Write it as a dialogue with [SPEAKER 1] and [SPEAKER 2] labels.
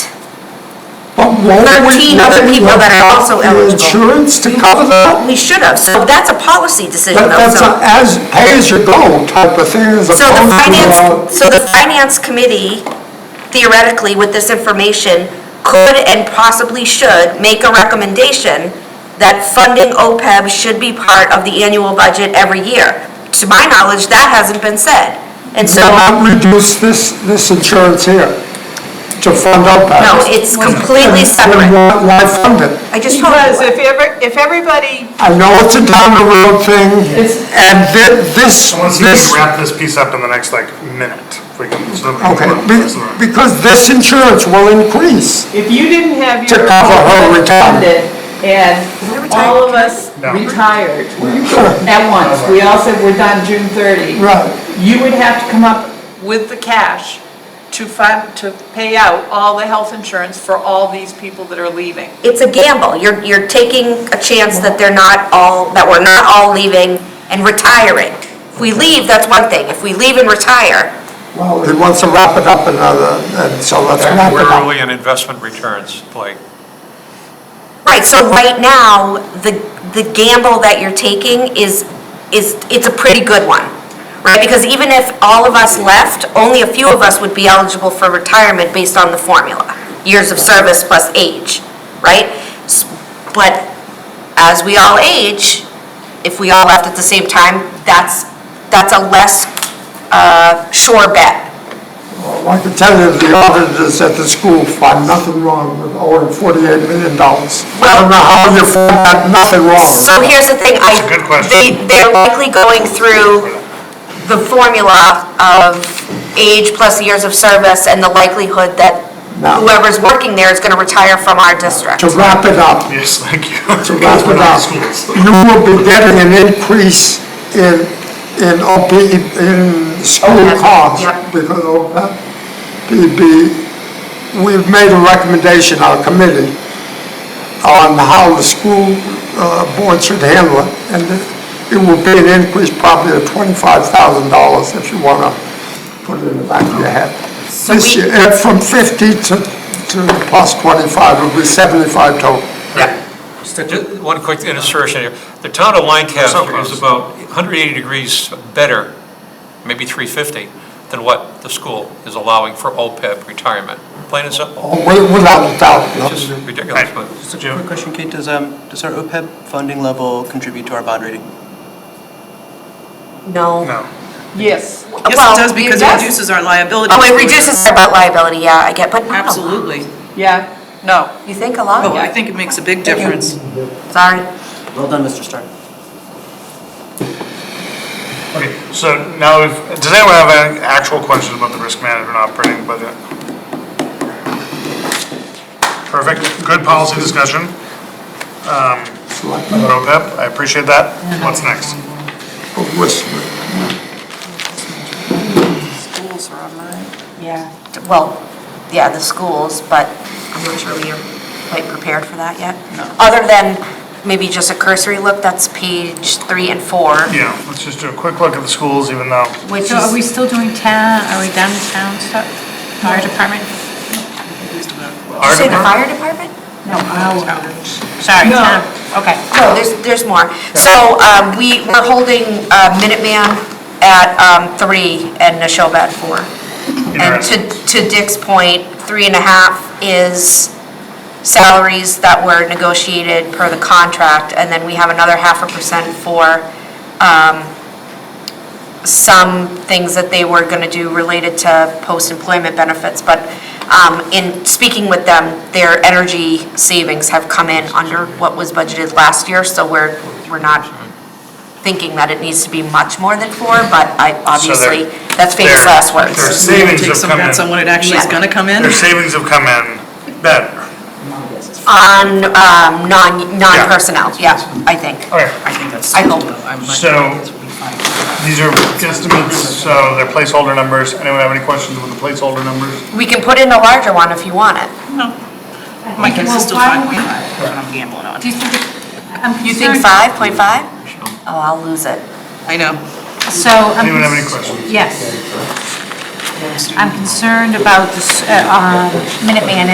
[SPEAKER 1] won't we?
[SPEAKER 2] 13 other
[SPEAKER 1] won't we
[SPEAKER 2] people that are
[SPEAKER 1] have
[SPEAKER 2] also
[SPEAKER 1] the
[SPEAKER 2] eligible.
[SPEAKER 1] Insurance to cover that?
[SPEAKER 2] We should have, so that's a policy decision
[SPEAKER 1] That-
[SPEAKER 2] though,
[SPEAKER 1] That's a as,
[SPEAKER 2] so.
[SPEAKER 1] pay as you go type of thing as
[SPEAKER 2] So the
[SPEAKER 1] opposed to, uh,
[SPEAKER 2] finance, so the finance committee theoretically with this information could and possibly should make a recommendation that funding OPEB should be part of the annual budget every year. To my knowledge, that hasn't been said. And so,
[SPEAKER 1] not reduce this, this insurance here to fund OPEB.
[SPEAKER 2] no, it's completely
[SPEAKER 1] Then
[SPEAKER 2] separate.
[SPEAKER 1] why- Why fund it?
[SPEAKER 2] I just told
[SPEAKER 3] Because
[SPEAKER 2] you.
[SPEAKER 3] if ever, if everybody,
[SPEAKER 1] I know it's a down the road thing, and thi- this,
[SPEAKER 4] I want to see if
[SPEAKER 1] this,
[SPEAKER 4] we wrap this piece up in the next, like, minute. If we can- so that we
[SPEAKER 1] okay,
[SPEAKER 4] can work
[SPEAKER 1] be-
[SPEAKER 4] this around.
[SPEAKER 1] because this insurance will increase.
[SPEAKER 3] if you didn't have your.
[SPEAKER 1] To cover her retirement.
[SPEAKER 3] funded And all of us
[SPEAKER 4] No.
[SPEAKER 3] retired at once, we all said we're done June 30.
[SPEAKER 1] Right.
[SPEAKER 3] You would have to come up with the cash to fund, to pay out all the health insurance for all these people that are leaving.
[SPEAKER 2] It's a gamble. You're, you're taking a chance that they're not all, that we're not all leaving and retiring. If we leave, that's one thing. If we leave and retire,
[SPEAKER 1] Well, he wants to wrap it up another, and so let's wrap it up.
[SPEAKER 5] Quarterly and investment returns, like,
[SPEAKER 2] Right, so right now, the, the gamble that you're taking is, is, it's a pretty good one, right? Because even if all of us left, only a few of us would be eligible for retirement based on the formula, years of service plus age, right? S- But as we all age, if we all left at the same time, that's, that's a less uh, sure bet.
[SPEAKER 1] Well, I can tell you, the auditors at the school find nothing wrong with owing forty-eight million dollars. I don't know how you find that nothing wrong.
[SPEAKER 2] So here's the thing, I.
[SPEAKER 4] That's a good question.
[SPEAKER 2] They, they're likely going through the formula of age plus years of service and the likelihood that
[SPEAKER 1] No.
[SPEAKER 2] whoever's working there is gonna retire from our district.
[SPEAKER 1] To wrap it up,
[SPEAKER 4] Yes, thank you.
[SPEAKER 1] to wrap it up, you will be getting an increase in, in OP, in school
[SPEAKER 2] Yep.
[SPEAKER 1] costs.
[SPEAKER 2] Yep.
[SPEAKER 1] Because OPEB, we've made a recommendation, our committee, on how the school uh, board should handle it. And it will be an increase probably of twenty-five thousand dollars if you want to put it in the back of your head. This
[SPEAKER 2] we-
[SPEAKER 1] year, and from fifty to, to plus twenty-five, it'll be seventy-five total.
[SPEAKER 5] Ju- one quick insertion here. The town of
[SPEAKER 4] So
[SPEAKER 5] Lancaster
[SPEAKER 4] close.
[SPEAKER 5] is about 180 degrees better, maybe 350, than what the school is allowing for OPEB retirement. Plain and simple,
[SPEAKER 1] Oh, wi- Without a doubt. no.
[SPEAKER 5] it's just ridiculous, but
[SPEAKER 6] Quick question, Kate, does, um, does our OPEB funding level contribute to our bond rating?
[SPEAKER 2] No.
[SPEAKER 4] No.
[SPEAKER 3] Yes.
[SPEAKER 7] Yes,
[SPEAKER 2] Well,
[SPEAKER 7] it does, because it
[SPEAKER 3] yes.
[SPEAKER 7] reduces our liability.
[SPEAKER 2] Oh, it reduces our debt liability, yeah, I get, but wow,
[SPEAKER 7] Absolutely.
[SPEAKER 3] Yeah, no.
[SPEAKER 2] you think a lot,
[SPEAKER 7] Oh, I think it makes a big difference.
[SPEAKER 2] sorry.
[SPEAKER 6] Well done, Mr. Stark.
[SPEAKER 4] Okay, so now we've, does anyone have any actual questions about the risk management operating budget? Perfect, good policy discussion. um, About OPEB, I appreciate that. What's next?
[SPEAKER 7] Schools are online.
[SPEAKER 2] Yeah. Well, yeah, the schools, but I'm not sure we are quite prepared for that yet. Other than maybe just a cursory look, that's page three and four,
[SPEAKER 4] Yeah, let's just do a quick look at the schools, even though,
[SPEAKER 2] which
[SPEAKER 8] So are we
[SPEAKER 2] is,
[SPEAKER 8] still doing town, are we done with town stuff, fire department?
[SPEAKER 2] you say the fire department?
[SPEAKER 8] No, oh, sorry, town, okay.
[SPEAKER 2] No, there's, there's more. So um, we, we're holding uh, Minuteman at um, three and Neshoba at four. And to,
[SPEAKER 4] Interesting.
[SPEAKER 2] to Dick's point, three and a half is salaries that were negotiated per the contract, and then we have another half a percent for um, some things that they were going to do related to post-employment benefits. But um, in speaking with them, their energy savings have come in under what was budgeted last year, so we're, we're not thinking that it needs to be much more than four, but I, obviously, that's famous
[SPEAKER 4] their-
[SPEAKER 2] last
[SPEAKER 4] their
[SPEAKER 2] words.
[SPEAKER 7] We're gonna
[SPEAKER 4] savings
[SPEAKER 7] Take
[SPEAKER 4] have
[SPEAKER 7] some
[SPEAKER 4] come
[SPEAKER 7] bets on
[SPEAKER 4] in,
[SPEAKER 7] when it actually is gonna come in.
[SPEAKER 4] their savings have come in better.
[SPEAKER 2] On um, non, non-personnel, yeah, I think.
[SPEAKER 4] Okay,
[SPEAKER 7] I think that's.
[SPEAKER 2] I hope.
[SPEAKER 7] I'm like-
[SPEAKER 4] So-
[SPEAKER 7] It's really fine.
[SPEAKER 4] These are guesstimates, so they're placeholder numbers. Anyone have any questions with the placeholder numbers?
[SPEAKER 2] We can put in a larger one if you want it.
[SPEAKER 7] No. My guess is still
[SPEAKER 8] Well,
[SPEAKER 7] five
[SPEAKER 8] why would-
[SPEAKER 7] point five, that's what I'm gambling on.
[SPEAKER 8] Do you think, it- I'm concerned.
[SPEAKER 2] You think 5.5? Oh, I'll lose it.
[SPEAKER 7] I know.
[SPEAKER 8] So I'm.
[SPEAKER 4] Anyone have any
[SPEAKER 8] cons-
[SPEAKER 4] questions?
[SPEAKER 8] Yes. I'm concerned about this, uh, uh, Minuteman